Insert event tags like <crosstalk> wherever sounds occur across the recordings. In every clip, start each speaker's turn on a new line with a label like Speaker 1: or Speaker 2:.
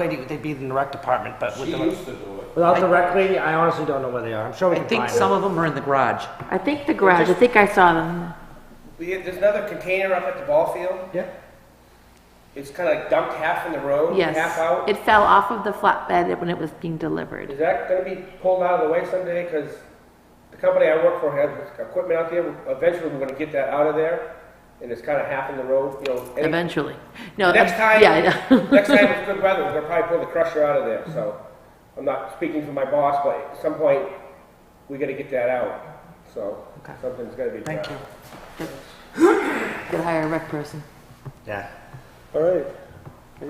Speaker 1: lady, they'd be in the rec department, but with
Speaker 2: She
Speaker 1: the,
Speaker 2: used to do it.
Speaker 1: without the rec lady, I honestly don't know where they are. I'm sure we
Speaker 3: I
Speaker 1: can
Speaker 3: think
Speaker 1: find
Speaker 3: some
Speaker 1: them.
Speaker 3: of them are in the garage.
Speaker 4: I think the garage, I think I saw them.
Speaker 5: We had, there's another container up at the ball field.
Speaker 1: Yeah,
Speaker 5: It's kind of like dumped half in the road, half
Speaker 4: Yes.
Speaker 5: out.
Speaker 4: It fell off of the flatbed when it was being delivered.
Speaker 5: Is that going to be pulled out of the way someday? Because the company I work for has equipment out there. Eventually, we're going to get that out of there, and it's kind of half in the road. You know. any-
Speaker 4: Eventually. No.
Speaker 5: Next
Speaker 4: ev-
Speaker 5: time,
Speaker 4: uh, Yeah. <laughs>
Speaker 5: <laughs>
Speaker 4: yeah.
Speaker 5: next time it's good weather, we're going to probably pull the crusher out of there. So I'm not speaking for my boss, but at some point, we got to get that out. So something's got to be.
Speaker 1: thank you.
Speaker 4: Could hire a rec person.
Speaker 1: Yeah.
Speaker 2: All right.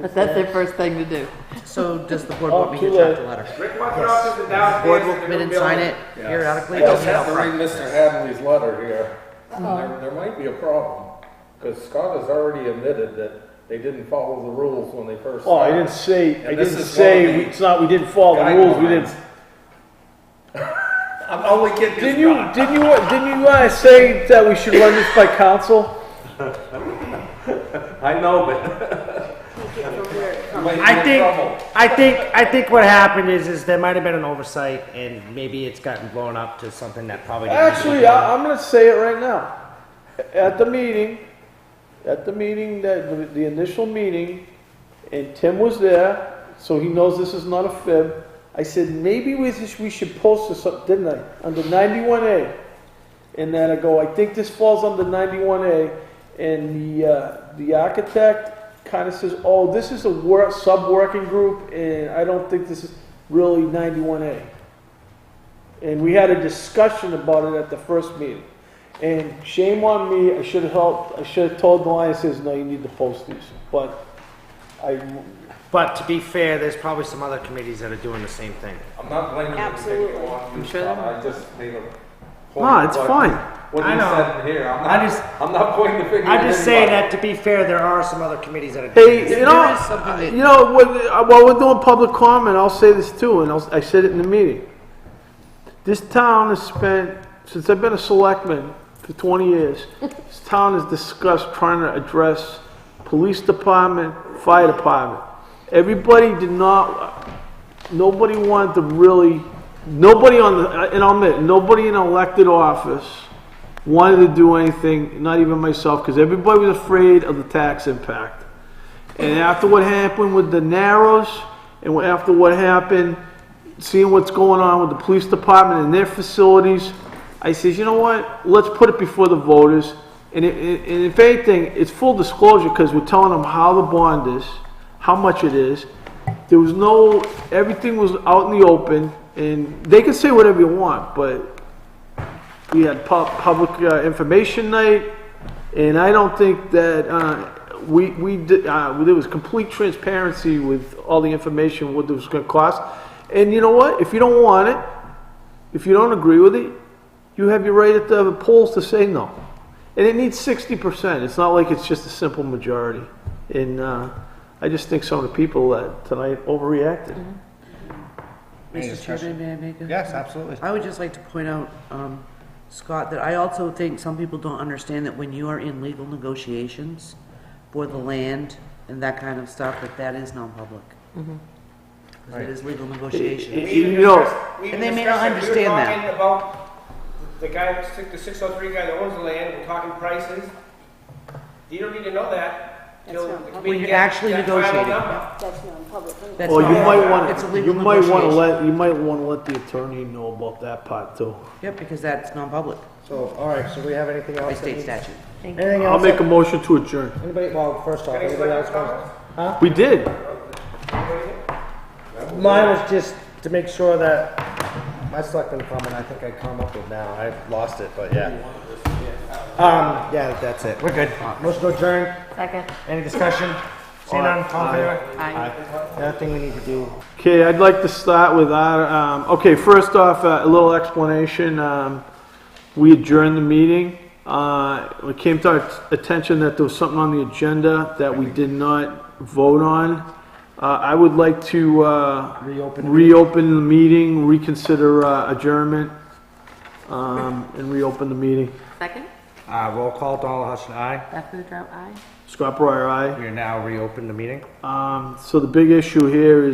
Speaker 4: But that's their first thing to do.
Speaker 3: So does the board
Speaker 2: Oh,
Speaker 3: want me to
Speaker 2: too
Speaker 3: draft
Speaker 2: late.
Speaker 3: a letter?
Speaker 5: Rick wants it off to the downstairs.
Speaker 3: Board will
Speaker 5: to the
Speaker 3: commit and
Speaker 5: building.
Speaker 3: sign it periodically,
Speaker 2: I
Speaker 3: it doesn't
Speaker 2: just have
Speaker 3: have
Speaker 2: to read Mr. Hadley's letter here. There, there might be a problem, because Scott has already admitted that they didn't follow the rules when they first.
Speaker 6: Oh, I
Speaker 2: started.
Speaker 6: didn't say, I
Speaker 2: And this
Speaker 6: didn't
Speaker 2: is one of
Speaker 6: say, we-
Speaker 2: the
Speaker 6: it's not, we didn't follow the rules, we didn't.
Speaker 2: guidelines. I'm only kidding.
Speaker 6: Didn't you, didn't you, didn't you, uh, say that we should run this by council?
Speaker 2: I know, but you might
Speaker 1: I
Speaker 2: get
Speaker 1: think,
Speaker 2: in trouble.
Speaker 1: I think, I think what happened is, is there might have been an oversight, and maybe it's gotten blown up to something that probably. didn't need to be
Speaker 6: Actually,
Speaker 1: blown
Speaker 6: I, I'm gonna say it right now. At the meeting, at the meeting, that, the- the initial meeting, and Tim was there, so he knows this is not a fib. I said, maybe we, sh- we should post this, up," didn't I, under ninety-one A? And then I go, I think this falls under ninety-one A, and the, uh, the architect kinda says, oh, this is a work, sub-working group, and I don't think this is really ninety-one A. And we had a discussion about it at the first meeting. And shame on me, I should have helped, I should have told the Lions, says, no, you need to post these. But I,
Speaker 1: But to be fair, there's probably some other committees that are doing the same thing.
Speaker 2: I'm not blaming you. Absolutely. I'm
Speaker 4: sure that-
Speaker 2: I just made a. point
Speaker 1: No, Ah, it's
Speaker 2: about
Speaker 1: fine.
Speaker 2: What
Speaker 1: I
Speaker 2: you
Speaker 1: know.
Speaker 2: said here, I'm
Speaker 1: I
Speaker 2: not,
Speaker 1: just-
Speaker 2: I'm not pointing the finger.
Speaker 1: I
Speaker 2: at
Speaker 1: just say
Speaker 2: anybody.
Speaker 1: that to be fair, there are some other committees that are. doing
Speaker 6: hey, you
Speaker 3: there
Speaker 6: know,
Speaker 3: is something that-
Speaker 6: you know, when, uh, while we're doing public comment, I'll say this too, and I'll, I said it in the meeting. This town has spent, since I've been a selectman for
Speaker 3: <laughs>
Speaker 6: 20 years, this town has discussed trying to address police department, fire department. Everybody did not, nobody wanted to really, nobody on the, and I'll admit, nobody in elected office wanted to do anything, not even myself, because everybody was afraid of the tax impact. And after what happened with the Narrows, and after what happened, seeing what's going on with the police department and their facilities, I says, you know what? Let's put it before the voters. And, it, it- and if anything, it's full disclosure because we're telling them how the bond is, how much it is. There was no, everything was out in the open, and they can say whatever you want, but we had pub, public uh, information night, and I don't think that, uh, we, we, did- uh, there was complete transparency with all the information, what it was gonna cost. And you know what? If you don't want it, if you don't agree with it, you have your right at the polls to say no. And it needs sixty percent. It's not like it's just a simple majority. And, uh, I just think some of the people that tonight overreacted.
Speaker 3: Mr. Chairman, may I make a?
Speaker 1: Yes, absolutely.
Speaker 3: I would just like to point out, um, Scott, that I also think some people don't understand that when you are in legal negotiations for the land and that kind of stuff, that that is non-public. Because it is legal negotiation.
Speaker 5: We even
Speaker 6: You know-
Speaker 5: discussed- we even
Speaker 3: And they may not
Speaker 5: discussed it. We were
Speaker 3: understand that.
Speaker 5: talking about the guy, the six oh three guy that owns the land, we're talking prices. You don't need to know that till
Speaker 7: That's
Speaker 5: the
Speaker 7: not-
Speaker 5: committee
Speaker 3: When you're
Speaker 5: gets
Speaker 3: actually
Speaker 5: that final
Speaker 3: negotiating.
Speaker 5: number.
Speaker 7: That's not in public. either.
Speaker 3: That's
Speaker 6: Well, you
Speaker 3: not-
Speaker 6: might want
Speaker 3: It's a
Speaker 6: to, you
Speaker 3: legal
Speaker 6: might want to
Speaker 3: negotiation.
Speaker 6: let, you might want to let the attorney know about that part too.
Speaker 3: Yep, because that's non-public
Speaker 1: So, all right, so we have anything else?
Speaker 3: by
Speaker 1: that
Speaker 3: state
Speaker 1: needs-
Speaker 3: statute.
Speaker 1: Anything
Speaker 6: I'll
Speaker 1: else?
Speaker 6: make a motion to adjourn.
Speaker 1: Anybody, well, first off,
Speaker 5: Any
Speaker 1: anybody else
Speaker 5: selectmen's
Speaker 1: wants?
Speaker 5: comments?
Speaker 6: We did.
Speaker 1: Mine was just to make sure that, my selectman comment, I think I come up with now, I lost it, but yeah. Um, yeah, that's it, we're good. Motion to adjourn,
Speaker 4: Second.
Speaker 1: any discussion? Seeing none, all in favor?
Speaker 4: Aye.
Speaker 1: The other thing we need to do,
Speaker 6: Okay, I'd like to start with our, um, okay, first off, uh, a little explanation. Um, we adjourned the meeting. Uh, it came to our attention that there was something on the agenda that we did not vote on. Uh, I would like to, uh,
Speaker 1: Reopen the
Speaker 6: reopen the meeting, reconsider uh, adjournment, um, and reopen the meeting.
Speaker 4: Second?
Speaker 5: Uh, roll call, Donald Hutchin, aye.
Speaker 4: Back to the drought, aye?
Speaker 6: Scott Breyer, aye.
Speaker 5: We are now reopened the meeting.
Speaker 6: Um, so the big issue here is.